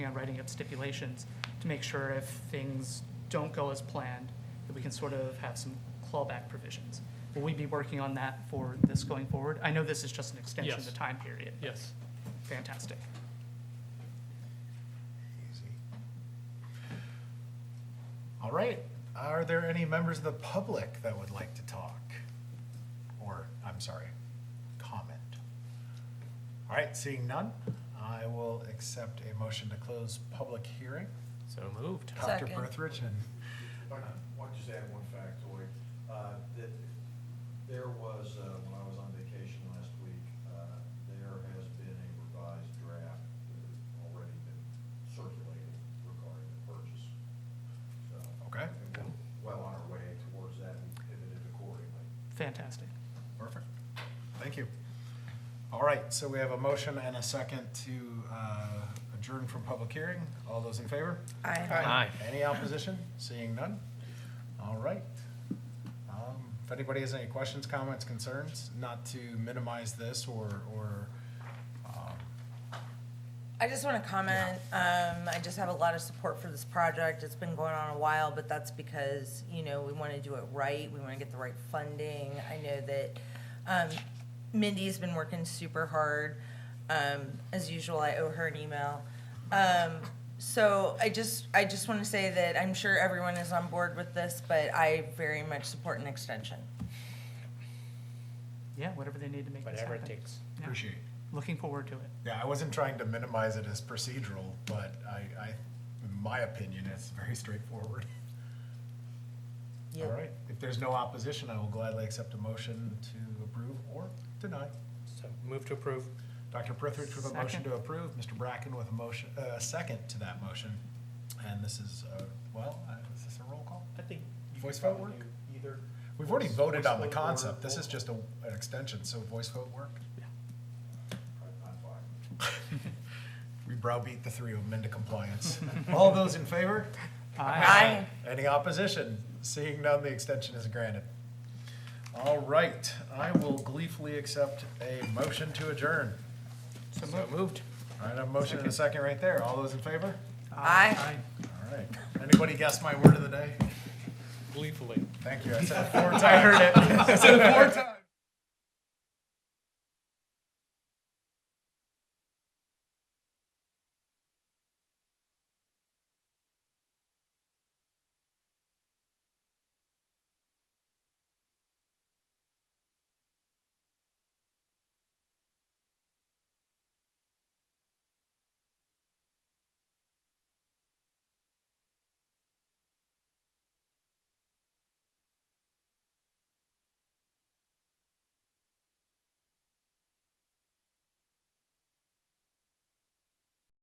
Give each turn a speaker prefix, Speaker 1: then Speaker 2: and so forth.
Speaker 1: on writing up stipulations to make sure if things don't go as planned, that we can sort of have some clawback provisions. Will we be working on that for this going forward? I know this is just an extension of
Speaker 2: Yes.
Speaker 1: the time period. but
Speaker 2: Yes.
Speaker 1: Fantastic.
Speaker 3: Easy. All right, are there any members of the public that would like to talk? Or, I'm sorry, comment? All right, seeing none, I will accept a motion to close public hearing.
Speaker 2: So moved.
Speaker 3: Dr.
Speaker 4: Second.
Speaker 3: Berthridge and,
Speaker 5: If I could, why don't you just add one factoid? Uh, that There was, uh, when I was on vacation last week, uh, there has been a revised draft that has already been circulated regarding the purchase. So,
Speaker 3: Okay.
Speaker 5: and we're Well on our way towards that and pivoted accordingly.
Speaker 1: Fantastic.
Speaker 3: perfect, thank you. All right, so we have a motion and a second to uh, adjourn from public hearing. All those in favor?
Speaker 4: Aye.
Speaker 2: Aye.
Speaker 3: Any opposition? Seeing none? All right. Um, If anybody has any questions, comments, concerns, not to minimize this or, or, um,
Speaker 4: I just want to comment, um, I just have a lot of support for this project. It's been going on a while, but that's because, you know, we want to do it right. We want to get the right funding. I know that, um, Mindy's been working super hard. Um, as usual, I owe her an email. Um, so I just, I just want to say that I'm sure everyone is on board with this, but I very much support an extension.
Speaker 1: Yeah, whatever they need to make this happen.
Speaker 2: Whatever it takes.
Speaker 1: Yeah.
Speaker 3: appreciate.
Speaker 1: Looking forward to it.
Speaker 3: Yeah, I wasn't trying to minimize it as procedural, but I, I, in my opinion, it's very straightforward. All
Speaker 4: Yep.
Speaker 3: right, if there's no opposition, I will gladly accept a motion to approve or deny.
Speaker 2: So move to approve.
Speaker 3: Dr. Prithridge with a
Speaker 1: Second.
Speaker 3: motion to approve, Mr. Bracken with a motion, uh, a second to that motion. And this is, uh, well, uh, is this a roll call?
Speaker 2: I think.
Speaker 3: you Voice vote probably work?
Speaker 2: Either.
Speaker 3: We've already voted on the
Speaker 5: vote or-
Speaker 3: concept, this is just a, an extension, so voice vote work?
Speaker 5: I- I'm fine.
Speaker 3: We browbeat the three of them into compliance. All those in favor?
Speaker 4: Aye.
Speaker 3: Any opposition? Seeing none, the extension is granted. All right, I will gleefully accept a motion to adjourn.
Speaker 2: So moved.
Speaker 3: All right, I have a motion and a second right there, all those in favor?
Speaker 4: Aye.
Speaker 3: All right, anybody guess my word of the day?
Speaker 2: Gleefully.
Speaker 3: Thank you, I said it four times. I heard it. I said it four times.